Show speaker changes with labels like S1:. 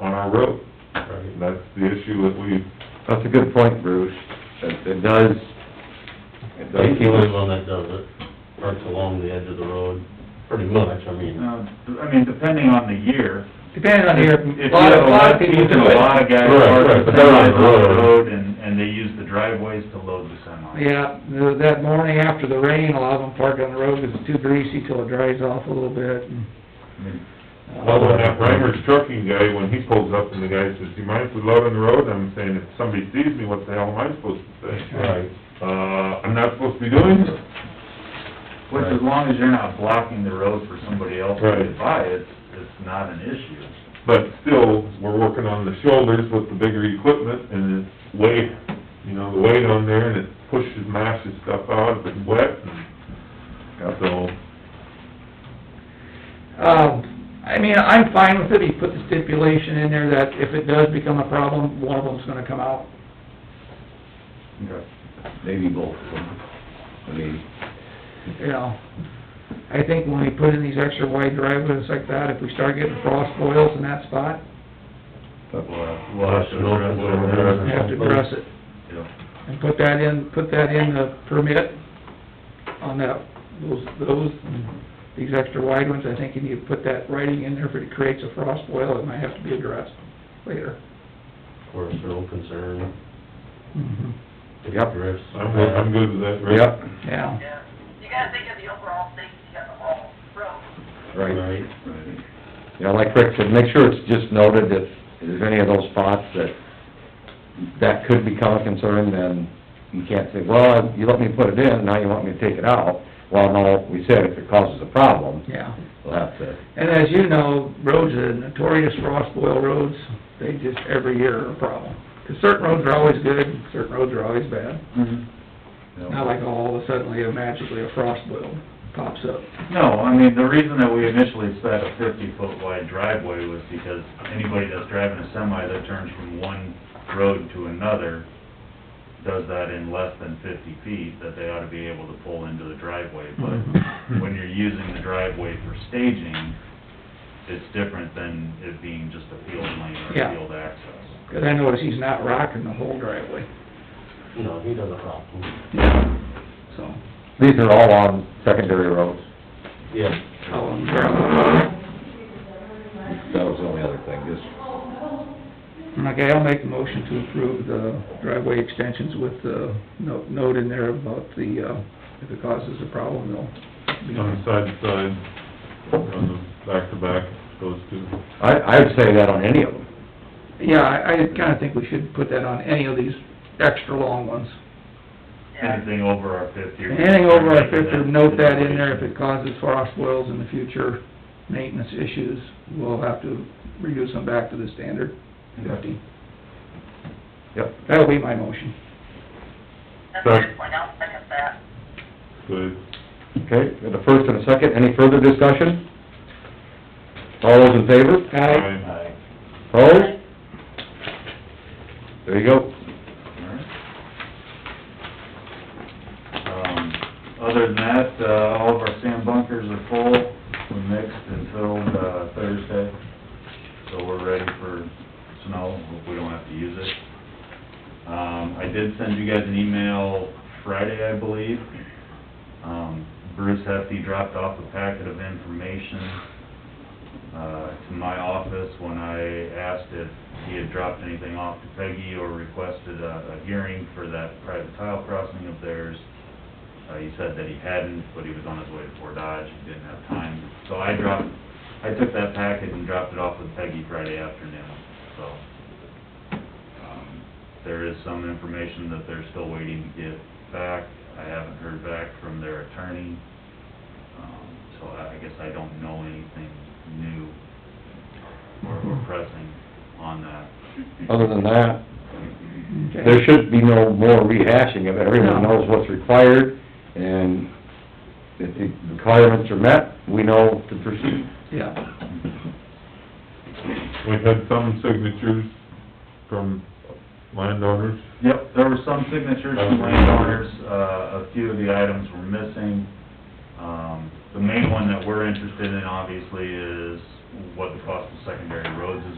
S1: on our road.
S2: Right.
S1: That's the issue that we,
S3: That's a good point, Bruce. It it does, it does
S2: He's the only one that does it, parks along the edge of the road, pretty much, I mean.
S4: Uh, I mean, depending on the year.
S5: Depending on here,
S4: If you
S5: a lot,
S4: have
S5: a lot of people
S4: season,
S5: do
S4: A lot
S5: it.
S4: of guys
S2: Right,
S4: park
S2: right,
S4: the
S2: but they're on the
S4: semis on the
S2: road.
S4: road and, and they use the driveways to load the semis.
S5: Yeah, the- that morning after the rain, a lot of them park on the road because it's too greasy till it dries off a little bit.
S4: Hmm.
S5: and,
S4: I mean,
S1: well,
S5: uh,
S1: when that Reimer's trucking guy, when he pulls up and the guy says, do you mind if we load on the road? I'm saying, if somebody sees me, what the hell am I supposed to say?
S2: Right.
S1: Uh, I'm not supposed to be doing this.
S4: Which, as long as you're not blocking the road for somebody else to
S1: Right.
S4: get by, it's, it's not an issue.
S1: But still, we're working on the shoulders with the bigger equipment and it's weight, you know, the weight on there and it pushes, mashes stuff out if it's wet and so.
S5: Um, I mean, I'm fine with it, he put the stipulation in there that if it does become a problem, one of them's gonna come out.
S4: Okay.
S3: maybe both of them. I mean,
S5: you know, I think when we put in these extra wide driveways like that, if we start getting frost boils in that spot,
S3: but we'll have
S2: We'll have to know if we're
S5: we
S2: gonna
S5: have to address it.
S4: Yeah.
S5: And put that in, put that in the permit on that, those, those, these extra wide ones, I think you need to put that writing in there, if it creates a frost boil, it might have to be addressed later.
S2: Of course, no concern. if
S3: Yep.
S2: drifts.
S1: I'm, good- I'm good with that, Rick.
S3: Yep,
S5: Yeah,
S6: Yeah, you gotta think of the overall safety of the whole road.
S3: right.
S2: Right,
S4: Right.
S3: Yeah, like Rick said, make sure it's just noted if there's any of those spots that, that could become a concern, then you can't say, well, you let me put it in, now you want me to take it out. Well, no, we said if it causes a problem,
S5: yeah.
S3: we'll have to,
S5: And as you know, roads are notorious frost boil roads, they just every year are a problem. 'Cause certain roads are always good, certain roads are always bad.
S3: you
S5: Mm-hmm. Not
S3: know,
S5: like all of a sudden, uh, magically, a frost boil pops up.
S4: No, I mean, the reason that we initially set a fifty-foot wide driveway was because anybody that's driving a semi that turns from one road to another does that in less than fifty feet, that they ought to be able to pull into the driveway.
S5: Mm-hmm.
S4: But when you're using the driveway for staging, it's different than it being just a field lane or
S5: Yeah.
S4: a field access.
S5: 'Cause I notice he's not rocking the whole driveway.
S2: no, he doesn't rock them.
S5: So,
S3: these are all on secondary roads.
S2: Yeah.
S5: how long gravel.
S3: That was the only other thing, just
S5: Okay, I'll make a motion to approve the driveway extensions with the note, note in there about the, uh, if it causes a problem, they'll be
S1: On the side to side, on the back to back, those two.
S3: I, I'd say that on any of them.
S5: Yeah, I, I kinda think we should put that on any of these extra long ones.
S6: Yeah.
S4: Anything over our fifty. or-
S5: Anything over a fifty, note that in there, if it causes frost boils in the future, maintenance issues, we'll have to reduce them back to the standard fifty.
S3: Yep.
S5: That'll be my motion.
S6: That's a good point, I'll second that.
S1: Good.
S3: Okay, got a first and a second, any further discussion? All those in favor?
S5: Aye.
S4: Aye.
S3: Opposed? There you go.
S4: Um, Other than that, uh, all of our sand bunkers are full, we mixed and filled, uh, Thursday, so we're ready for snow, hope we don't have to use it. Um, I did send you guys an email Friday, I believe. Um, Bruce Hefty dropped off a packet of information, uh, to my office when I asked if he had dropped anything off to Peggy or requested a, a hearing for that private tile crossing of theirs. Uh, he said that he hadn't, but he was on his way to Fort Dodge, he didn't have time. So I dropped, I took that packet and dropped it off with Peggy Friday afternoon, so. um, There is some information that they're still waiting to get back. I haven't heard back from their attorney. Um, So I I guess I don't know anything new or or pressing on that.
S3: Other than that,
S5: Okay.
S3: there should be no more rehashing of it, everyone
S5: No.
S3: knows what's required, and if the requirements are met, we know to proceed.
S5: Yeah,
S1: We had some signatures from landowners.
S4: Yep, there were some signatures from landowners, uh, a few of the items were missing. Um, the main one that we're interested in obviously is what the cost of secondary roads is